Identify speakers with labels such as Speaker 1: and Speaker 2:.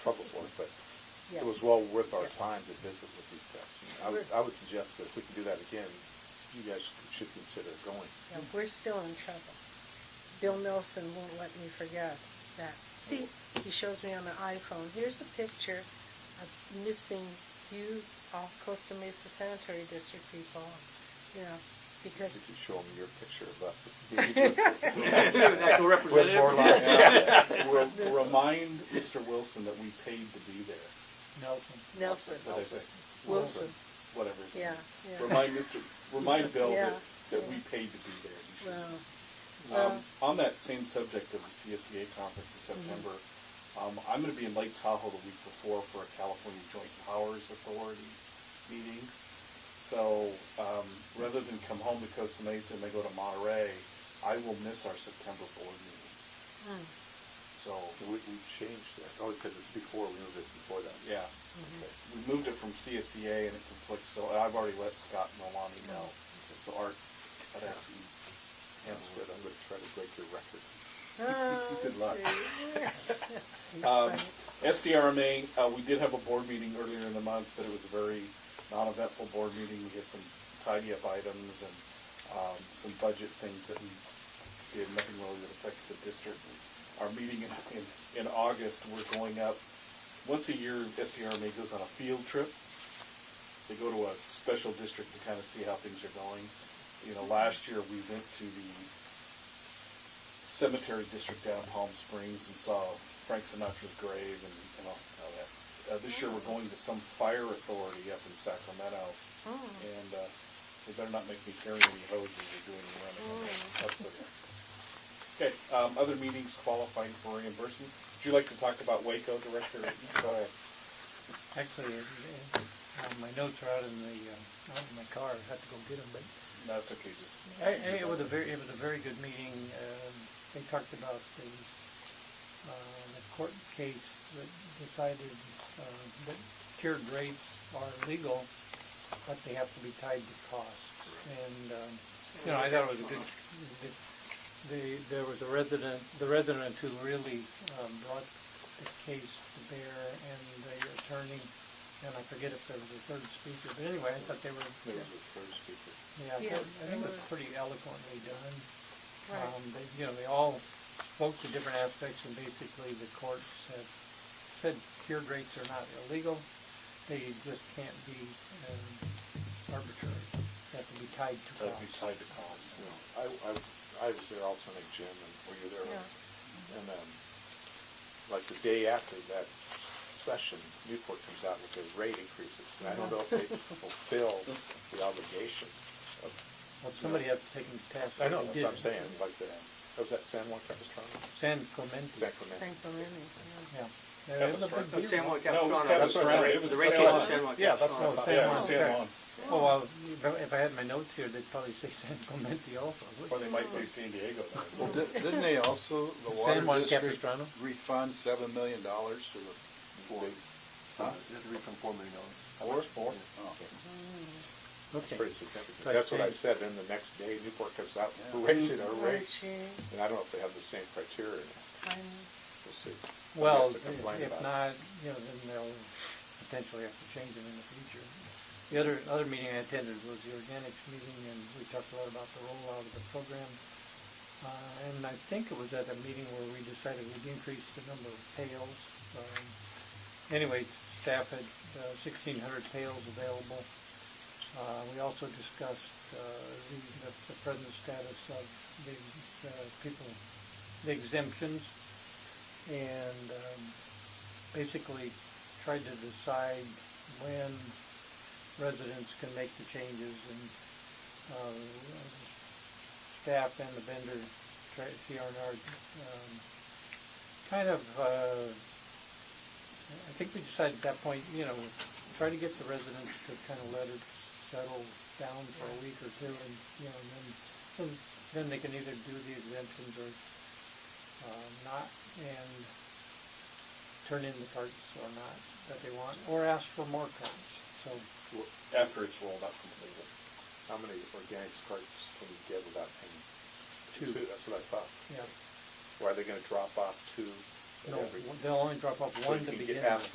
Speaker 1: was well worth our time to visit with these guys. I would, I would suggest that if we can do that again, you guys should consider going.
Speaker 2: Yeah, we're still in trouble. Bill Nelson won't let me forget that. See, he shows me on the iPhone, here's a picture of missing you off Costa Mesa Sanitary District people, you know,
Speaker 1: If
Speaker 2: because,
Speaker 1: you show them your picture of us.
Speaker 3: National
Speaker 1: With more
Speaker 3: representative.
Speaker 1: like, yeah.
Speaker 4: Re- Remind Mr. Wilson that we paid to be there.
Speaker 5: Nelson.
Speaker 2: Nelson,
Speaker 4: What is it?
Speaker 2: Wilson,
Speaker 4: Whatever. his name
Speaker 2: yeah,
Speaker 4: is.
Speaker 2: yeah.
Speaker 4: Remind Mr., remind Bill
Speaker 2: Yeah,
Speaker 4: that, that we
Speaker 2: yeah.
Speaker 4: paid to be there. You should-
Speaker 2: Well,
Speaker 4: Um,
Speaker 2: Well- Mm-hmm.
Speaker 4: on that same subject of the CSBA conference in September, um, I'm gonna be in Lake Tahoe the week before for a California Joint Powers Authority meeting. So, um, rather than come home to Costa Mesa and they go to Monterey, I will miss our September board meeting.
Speaker 2: mm,
Speaker 4: So,
Speaker 1: uh, We, we changed that, oh, because it's before, we moved it before that.
Speaker 4: yeah, we moved it from CSDA and it conflicts, so I've already let Scott Milani know. So Art, I'd ask you,
Speaker 1: That's good, I'm gonna try to break your record.
Speaker 2: oh,
Speaker 4: Good luck.
Speaker 2: gee.
Speaker 4: Um, SDRMA, uh, we did have a board meeting earlier in the month, but it was a very non-eventful board meeting. We had some tidy up items and, um, some budget things that we did, nothing really that affects the district. Our meeting in, in, in August, we're going up, once a year, SDRMA goes on a field trip. They go to a special district to kind of see how things are going. You know, last year, we went to the cemetery district down in Palm Springs and saw Frank Sinatra's grave and, and all, all that. Uh, this year we're going to some fire authority up in Sacramento,
Speaker 2: Mm.
Speaker 4: and uh, they better not make me carry any hoses or do any running up there. Okay, um, other meetings qualifying for reimbursement. Would you like to talk about Waco, Director? Go ahead.
Speaker 5: Actually, it- it- uh, my notes are out in the, uh, out in my car, I have to go get them, but
Speaker 4: No, it's okay, just.
Speaker 5: I- I- it was a very, it was a very good meeting. Um, They talked about the, uh, the court case that decided uh, that tiered rates are legal, but they have to be tied to costs. And, um, you know, I thought it was a good, good- the, there was a resident, the resident who really um, brought the case to bear and the attorney, and I forget if there was a third speaker, but anyway, I thought they were,
Speaker 1: There was a third speaker.
Speaker 5: yeah, I
Speaker 2: Yeah,
Speaker 5: thought- I think it was
Speaker 2: they were-
Speaker 5: pretty eloquently done.
Speaker 2: Right.
Speaker 5: Um, they, you know, they all spoke to different aspects and basically the courts have said tiered rates are not illegal. They just can't be, um, arbitrary. They have to be tied to
Speaker 4: That'd be
Speaker 5: costs.
Speaker 4: tied to cost.
Speaker 1: you know, I, I, I was there also, I think Jim, and were you there? And then, like the day after that session, Newport comes out with their rate increases, and I don't know if they fulfill the obligation of,
Speaker 5: Well, somebody had to take them to task.
Speaker 1: I know,
Speaker 5: They
Speaker 1: that's what I'm
Speaker 5: didn't.
Speaker 1: saying, like the, was that San Juan Capistrano?
Speaker 5: San Clemente,
Speaker 1: Sacramento.
Speaker 2: Thank the Lord, yeah.
Speaker 5: yeah. Yeah, it was a big
Speaker 4: Capistrano.
Speaker 3: But
Speaker 5: deal.
Speaker 3: San Juan
Speaker 4: No, it was
Speaker 3: Capistrano.
Speaker 4: Capistrano. It was
Speaker 3: The rate case
Speaker 4: Capistrano.
Speaker 3: was San Juan
Speaker 1: Yeah, that's
Speaker 3: Capistrano.
Speaker 1: what I
Speaker 5: San
Speaker 4: Yeah, it
Speaker 1: thought.
Speaker 4: was San Juan,
Speaker 5: Oh, well, if I- if I had my notes here, they'd probably say San Clemente also.
Speaker 4: or they might say San Diego.
Speaker 6: Well, di- didn't they also, the
Speaker 5: San Juan
Speaker 6: water district
Speaker 5: Capistrano?
Speaker 6: refund seven million dollars to the, Huh?
Speaker 7: You have to refund four million dollars.
Speaker 4: Four? Four.
Speaker 6: oh,
Speaker 1: It's
Speaker 5: Okay.
Speaker 1: pretty significant.
Speaker 5: Right,
Speaker 1: That's what I
Speaker 5: thanks.
Speaker 1: said, and the next day Newport comes out,
Speaker 6: Yeah.
Speaker 1: we're raising our
Speaker 2: Oh,
Speaker 1: rates,
Speaker 2: gee,
Speaker 1: and I don't know if they have the same criteria, or not.
Speaker 2: I'm-
Speaker 1: we'll see. We
Speaker 5: Well,
Speaker 1: have to complain
Speaker 5: if- if
Speaker 1: about it.
Speaker 5: not, you know, then they'll potentially have to change them in the future. The other, other meeting I attended was the organics meeting, and we talked a lot about the rollout of the program. Uh, and I think it was at a meeting where we decided we'd increase the number of pails. Um, Anyway, staff had uh, sixteen hundred pails available. Uh, we also discussed, uh, the, the- the present status of the, uh, people, the exemptions and um, basically tried to decide when residents can make the changes and uh, staff and the vendor, try- CRNR, um, kind of, uh, I think we decided at that point, you know, try to get the residents to kind of let it settle down for a week or two and, you know, and then, then- then they can either do the exemptions or uh, not and turn in the carts or not that they want, or ask for more carts. So
Speaker 4: After it's rolled out completely.
Speaker 1: How many organics carts can you get without paying?
Speaker 5: Two.
Speaker 1: That's what I thought.
Speaker 5: yeah,
Speaker 1: Or are they gonna drop off two? at
Speaker 5: no,
Speaker 1: every-
Speaker 5: they'll only drop off
Speaker 1: So
Speaker 5: one
Speaker 1: you
Speaker 5: to
Speaker 1: can get-
Speaker 5: begin with.
Speaker 1: ask